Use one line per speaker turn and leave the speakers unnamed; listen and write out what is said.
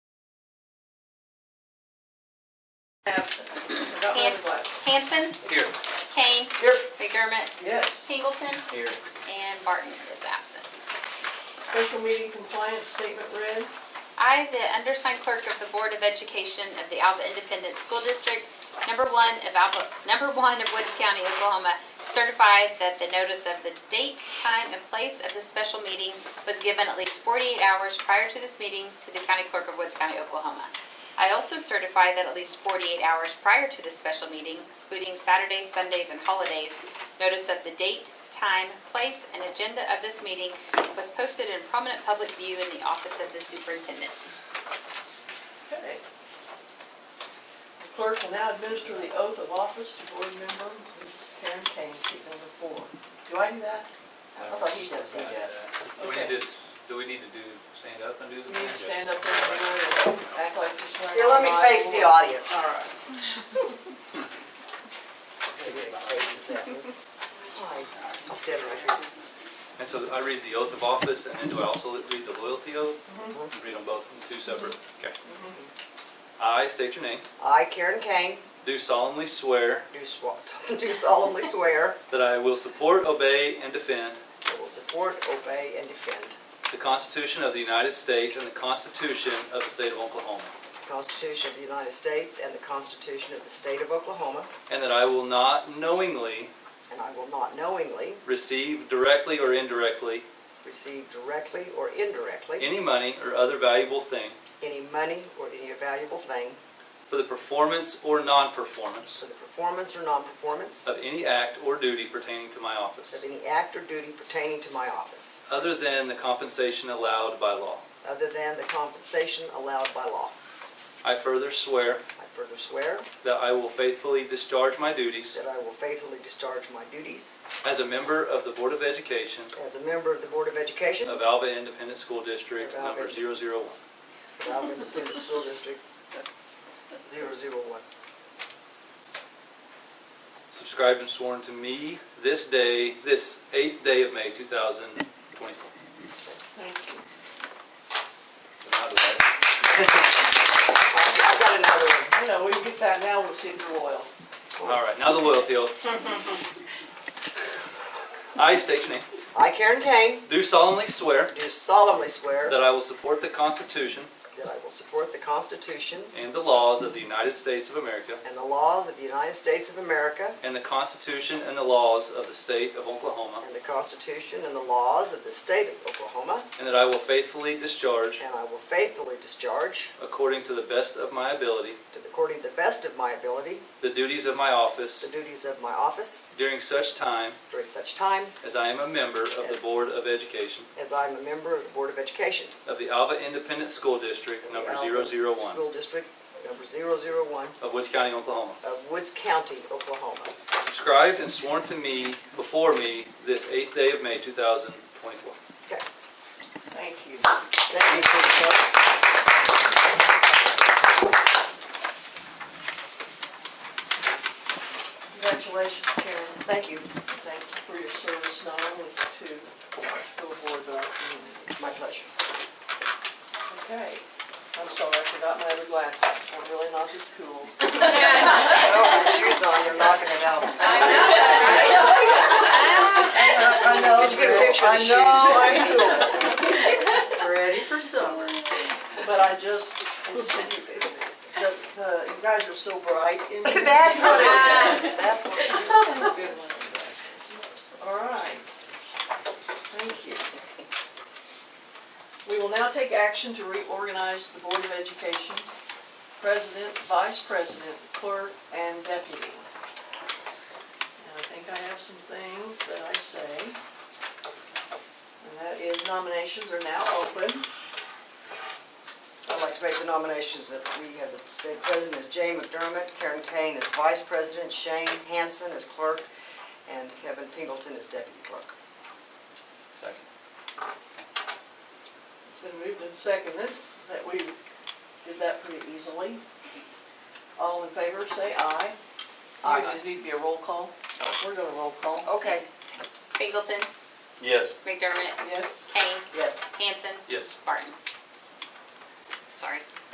Absent. Forgot where it was.
Hanson,
Here.
Kane,
Here.
McDermott,
Yes.
Singleton,
Here.
and Barton is absent.
Special meeting compliance statement read.
I, the undersigned clerk of the Board of Education of the Alva Independent School District, number one of Alva, number one of Woods County, Oklahoma, certify that the notice of the date, time, and place of this special meeting was given at least 48 hours prior to this meeting to the county clerk of Woods County, Oklahoma. I also certify that at least 48 hours prior to this special meeting, excluding Saturdays, Sundays, and holidays, notice of the date, time, place, and agenda of this meeting was posted in prominent public view in the office of the superintendent.
Okay. The Clerk will now administer the oath of office to board member Mrs. Karen Kane, seat number four. Do I do that? I thought he does, he does.
Do we need to, do we need to do, stand up and do
You
the?
need to stand up there and act like you're swearing.
Here, let me
on
face the
Bible.
audience.
All right.
I'm standing right here.
And so I read the oath of office, and then do I also read the loyalty oath?
Mm-hmm.
You Read them both, two separate, okay.
Mm-hmm.
I state your name,
I, Karen Kane,
do solemnly swear
do swa- do solemnly swear
that I will support, obey, and defend
that I will support, obey, and defend
the Constitution of the United States and the Constitution of the State of Oklahoma,
the Constitution of the United States and the Constitution of the State of Oklahoma,
and that I will not knowingly
and I will not knowingly
receive directly or indirectly
receive directly or indirectly
any money or other valuable thing
any money or any valuable thing
for the performance or non-performance
for the performance or non-performance
of any act or duty pertaining to my office,
of any act or duty pertaining to my office,
other than the compensation allowed by law.
other than the compensation allowed by law.
I further swear
I further swear
that I will faithfully discharge my duties
that I will faithfully discharge my duties
as a member of the Board of Education
as a member of the Board of Education
of Alva Independent School District
Of Alva.
number 001.
Alvin Independent School District, 001.
Subscribed and sworn to me this day, this eighth day of May 2024.
Thank you.
So now do I-
I've got another one.
You know, we can get that now, we'll see if you're loyal.
All right, now the loyalty oath. I state your name.
I, Karen Kane,
Do solemnly swear
do solemnly swear
that
that
I will support the Constitution
I will support the Constitution
and the laws of the United States of America
and the laws of the United States of America
and the Constitution and the laws of the State of Oklahoma,
and the Constitution and the laws of the State of Oklahoma,
and that I will faithfully discharge
and I will faithfully discharge,
According to the best of my ability.
to the- according to the best of my ability,
The duties of my
the
office
duties of my office
during such time
during such time
as I am a member of the Board of Education
as I am a member of the Board of Education.
of the Alva Independent School District,
in the
number
Alva
001,
School District, number 001
of Woods County, Oklahoma.
of Woods County, Oklahoma.
Subscribed and sworn to me, before me, this 8th day of May, 2024.
Okay.
Thank you.
Thank you.
Congratulations, Karen.
Thank you.
Thank you for your service not only to our school board, but our community.
My pleasure.
Okay. I'm sorry, I forgot my other glasses. I'm really not this cool.
Oh, with shoes on, you're knocking it out.
I know.
Did you get a picture of the
I
shoes?
know, I'm cool.
Ready for summer.
But I just, it's- the, the, you guys are so bright in here.
That's what it is. That's what it is.
All right. Thank you. We will now take action to reorganize the Board of Education, President, Vice President, Clerk, and Deputy. And I think I have some things that I say. And that is nominations are now open.
I'd like to make the nominations that we have, the state president is Jay McDermott, Karen Kane is vice president, Shane Hanson is clerk, and Kevin Pingleton is deputy clerk.
Second.
It's been moved and seconded that we did that pretty easily. All in favor, say aye.
Aye.
Does it need to be a roll call? We're going to roll call.
Okay,
Singleton,
Yes.
McDermott,
Yes?
Kane,
yes.
Hanson,
Yes.
Barton. Sorry,